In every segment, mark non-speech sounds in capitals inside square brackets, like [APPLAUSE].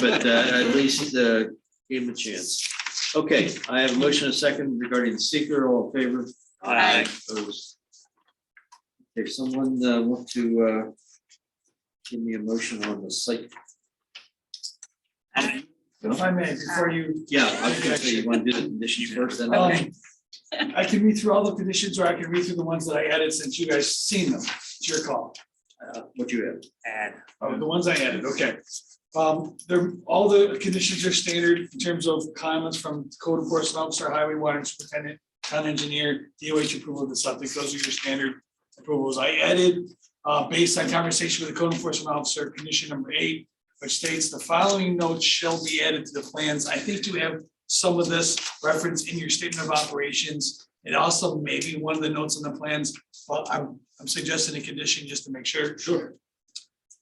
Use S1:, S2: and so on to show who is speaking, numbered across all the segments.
S1: but uh, at least uh, gave him a chance. Okay, I have a motion, and a second regarding the seeker, all in favor?
S2: Aye.
S1: Opposed? If someone uh, want to uh, give me a motion on the site,
S3: If I may,
S1: [LAUGHS]
S3: before you,
S1: yeah, I was gonna say, you want to do the conditions first, then I'll.
S3: um, I can read through all the conditions or I can read through the ones that I added since you guys seen them. It's your call.
S1: Uh, What you have?
S3: Oh, the ones I added, okay. Um, there, all the conditions are standard in terms of comments from code enforcement officer, highway water superintendent, town engineer, DOH approval of the subject, those are your standard approvals. I added, uh, based on conversation with the code enforcement officer, condition number eight, which states the following notes shall be added to the plans. I think you have some of this reference in your statement of operations. It also may be one of the notes on the plans, but I'm, I'm suggesting a condition just to make sure. Sure.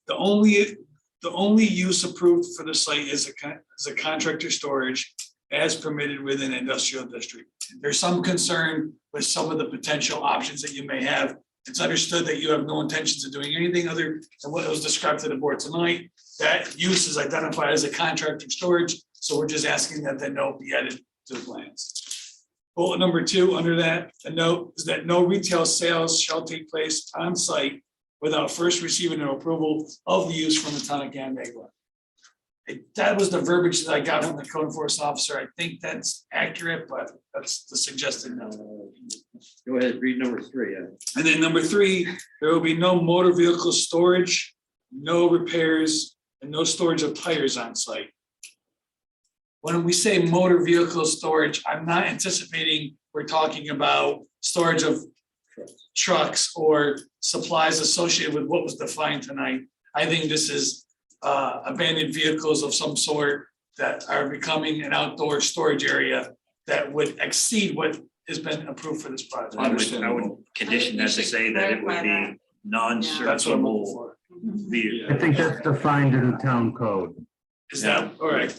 S3: The only, the only use approved for the site is a con- is a contractor storage as permitted within industrial district. There's some concern with some of the potential options that you may have. It's understood that you have no intentions of doing anything other than what was described to the board tonight. That use is identified as a contractor storage, so we're just asking that that note be added to the plans. Bullet number two, under that, the note is that no retail sales shall take place on site without first receiving an approval of the use from the town of Canandaigua. It- That was the verbiage that I got from the code enforcement officer. I think that's accurate, but that's the suggested note.
S1: Go ahead, read number three. uh,
S3: And then number three, there will be no motor vehicle storage, no repairs, and no storage of tires on site. When we say motor vehicle storage, I'm not anticipating we're talking about storage of trucks or supplies associated with what was defined tonight. I think this is uh, abandoned vehicles of some sort that are becoming an outdoor storage area that would exceed what has been approved for this project.
S2: I would, I would condition that to say that it would be
S3: That's what I'm looking
S2: non-searchable
S3: for.
S2: vehicle.
S4: I think that's defined in the town code.
S3: Is that, all right.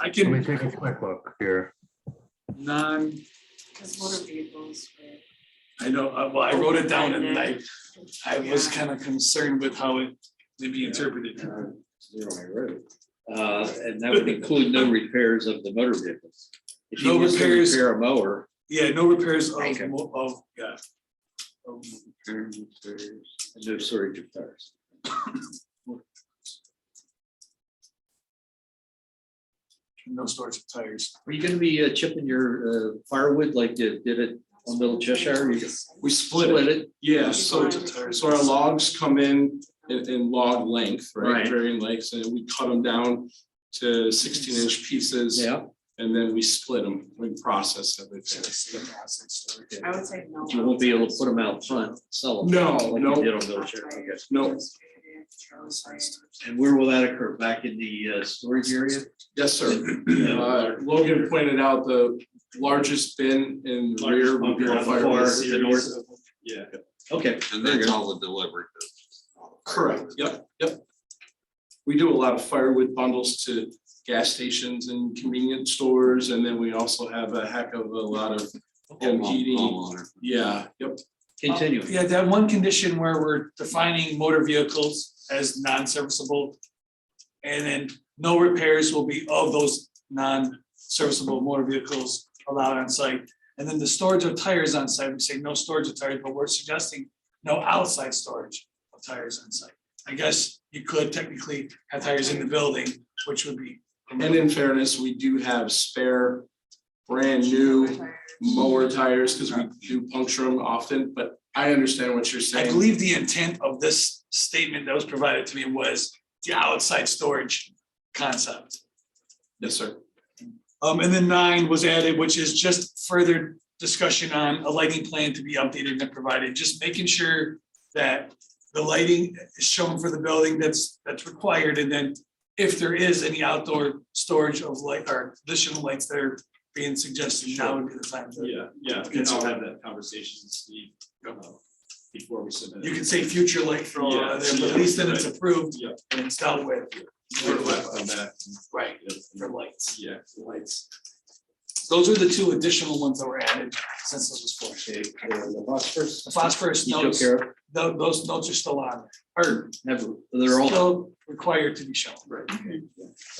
S3: I
S4: Let me
S3: can,
S4: take a quick look here.
S3: non,
S5: Because motor vehicles were.
S3: I know, uh, well, I wrote it down and I, I was kind of concerned with how it may be interpreted.
S1: uh, Zero I wrote. Uh, And that would include no repairs of the motor vehicles. If you
S3: No
S1: was to
S3: repairs.
S1: Repair a mower.
S3: Yeah, no repairs of,
S1: Okay.
S3: mo- of, yeah. Of
S1: No storage of tires.
S3: No storage of tires.
S1: Are you gonna be uh, chipping your uh, firewood like you did it on Little Cheshire? You
S6: We
S1: Split it,
S6: Yeah, so, so our logs come in, in, in log length,
S1: Right.
S6: right, varying lengths, and we cut them down to sixteen inch pieces.
S1: yeah.
S6: And then we split them, we process everything.
S5: I would say no.
S1: You won't be able to put them out front, sell them.
S6: No,
S1: like you
S6: no.
S1: Did on Little Cheshire, okay.
S6: No,
S1: And where will that occur? Back in the uh, storage area?
S3: [CLEARS THROAT]
S6: yes, sir. Uh, Logan pointed out the largest bin in the rear. would be
S1: Largest
S6: our
S1: bunker on the
S6: fire-
S1: far- to the north.
S6: Yeah,
S1: Okay.
S7: And that's all the delivery.
S6: correct, yep, yep. We do a lot of firewood bundles to gas stations and convenience stores, and then we also have a heck of a lot of home heating.
S7: Homeowner.
S6: Yeah, yep.
S1: Continue.
S3: Yeah, that one condition where we're defining motor vehicles as non-serviceable. And then no repairs will be of those non-serviceable motor vehicles allowed on site. And then the storage of tires on site, we say no storage of tires, but we're suggesting no outside storage of tires on site. I guess you could technically have tires in the building, which would be.
S6: And in fairness, we do have spare brand new mower tires because we do puncture them often, but I understand what you're
S3: I
S6: saying.
S3: believe the intent of this statement that was provided to me was the outside storage concept.
S6: Yes, sir.
S3: Um, and then nine was added, which is just further discussion on a lighting plan to be updated and provided, just making sure that the lighting is shown for the building that's, that's required, and then if there is any outdoor storage of light or additional lights that are being suggested, now would be the time to.
S8: Yeah, yeah, and I'll have that conversation with Steve uh, before we submit. it.
S3: You can say future light for all, of them, but at least then it's approved
S8: Yeah.
S3: and it's dealt with.
S8: We're left on that,
S3: Right,
S8: yeah,
S3: for lights.
S8: yeah,
S3: Lights. Those are the two additional ones that were added since this was four.
S1: Okay, uh, The phosphorus.
S3: The phosphorus
S1: You took
S3: notes,
S1: care of,
S3: tho- those notes are still on, or
S1: Never- they're all.
S3: still required to be shown. Right.